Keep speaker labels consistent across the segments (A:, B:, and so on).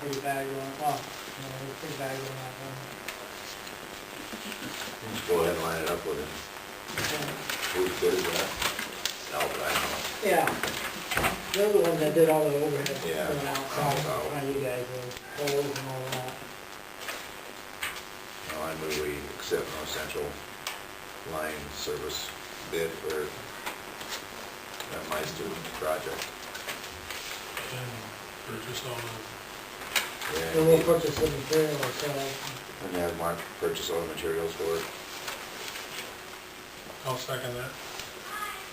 A: pretty bad going, well, you know, it was pretty bad going that one.
B: Just go ahead and line it up with him.
A: So,
B: Who's good at that? Albert, I know.
A: Yeah, they're the ones that did all the overhead.
B: Yeah.
A: going out, so, How you guys were, holes and all that.
B: No, I move we accept no essential line service bid for that Meister project.
C: and purchase all the,
B: Yeah,
A: So we'll
B: And
A: purchase the material ourselves.
B: and have Mark purchase all the materials for it.
C: I'll second that.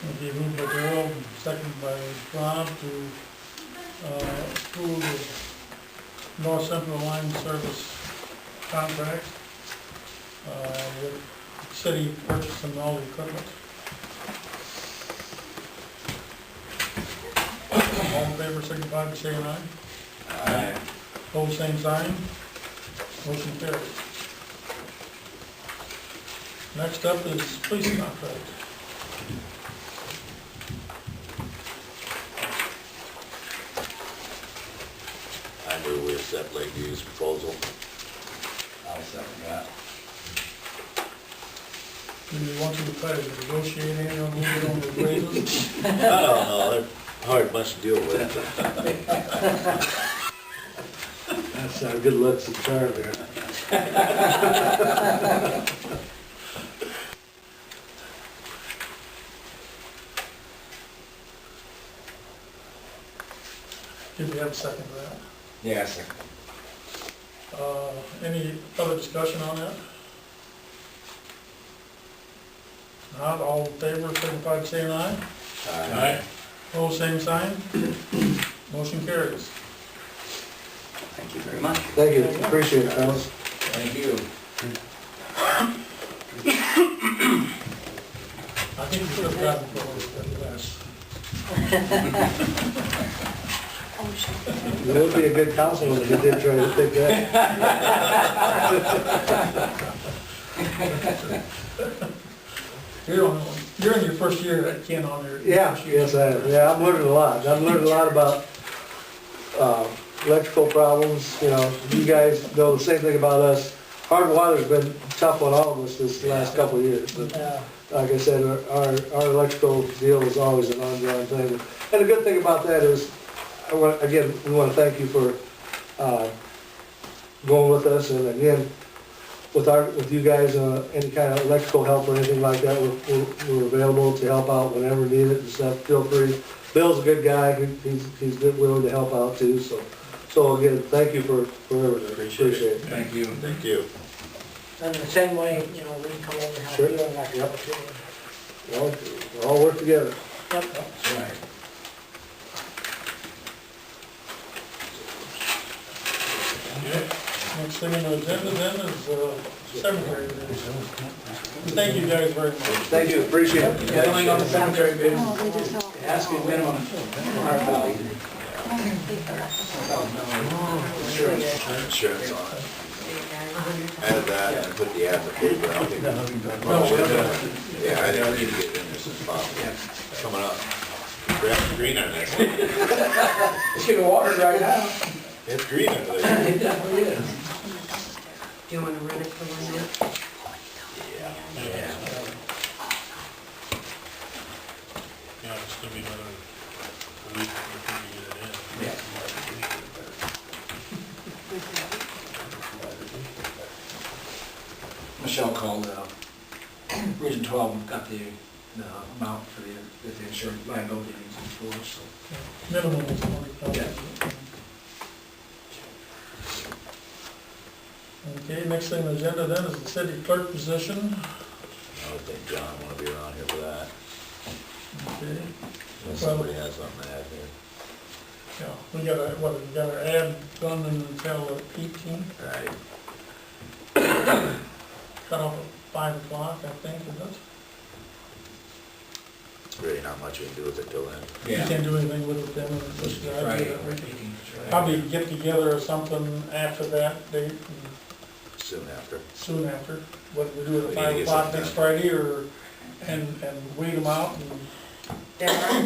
D: Okay, moved by Darrell, second by Rob to, uh, approve the North Central Line Service contract, uh, with city purchasing all the equipment. All in favor, signify by saying aye.
B: Aye.
D: Hold same sign. Motion carries. Next up is police contract.
B: I move we accept Lakeview's proposal.
E: I'll second that.
D: Do you want to try to negotiate any of these on the raises?
B: Oh, I don't know, they're hard bunch to deal with.
E: That's
B: uh,
E: how good looks the tar there.
D: If you have a second to that.
E: Yes.
D: Uh, Any other discussion on that? Not all in favor, signify by saying aye.
B: Aye.
D: All same sign. Motion carries.
E: Thank you very much.
B: Thank you, appreciate it, fellas.
E: Thank you.
D: I think you could have gotten for less.
E: It would be a good council if you did try to pick that.
D: You're on, you're in your first year at Ken on your.
E: Yeah, yes, I, am. yeah, I've learned a lot. I've learned a lot about, uh, electrical problems, you know. You guys know the same thing about us. Hard water's been tough on all of us this last couple of years, but
A: Yeah,
E: like I said, our- our, our electrical deal is always an ongoing thing. And the good thing about that is, I want, again, we want to thank you for, uh, going with us, and again, with our, with you guys, uh, any kind of electrical help or anything like that, we're, we're- we're available to help out whenever needed and stuff, feel free. Bill's a good guy, He- he's, he's good- willing to help out too, so, so again, thank you for, for everything, appreciate it.
B: Thank you. Thank you.
A: and the same way, you know, we can come over and help
E: Sure.
A: you on that.
E: Yep.
A: opportunity.
E: We all- we all work together.
A: Yep.
D: Next thing on the agenda then is, uh, cemetery. bids. Thank you guys very much.
E: Thank you, appreciate it.
F: Going on the cemetery bid,
G: Oh, they just all.
F: asking minimum, hard value.
B: Insurance on it. Add that and put the ad in the paper, I don't think. Yeah, I think we need to get in this as possible. Coming up. Grass green on that one.
F: It's getting watered right now.
B: It's green, I believe.
F: It definitely is.
H: Do you want to run it for one minute?
B: Yeah.
C: Yeah, it's gonna be another week before we get it in.
F: Michelle called, uh, Region Twelve, we've got the, the amount for the, that the insurance liability is for, us, so.
D: Minimum is twenty thousand. Okay, next thing on the agenda then is the city clerk
B: I
D: position.
B: don't think John wanna be around here for that.
D: Okay,
B: Unless Somebody has something to add here.
D: yeah, we got a, what, we got our ad done until eighteen,
B: Right.
D: cut off at five o'clock, I think, is it?
B: Really not much we can do with it till then.
D: You can't do anything with it then, it's just the idea that we can
F: Friday.
D: probably get together or something after that date, and
B: Soon after.
D: soon after, whether we do it
B: We need to
D: at
B: get
D: five o'clock
B: something
D: next
B: done.
D: Friday or, and, and weed them out and
H: Deborah?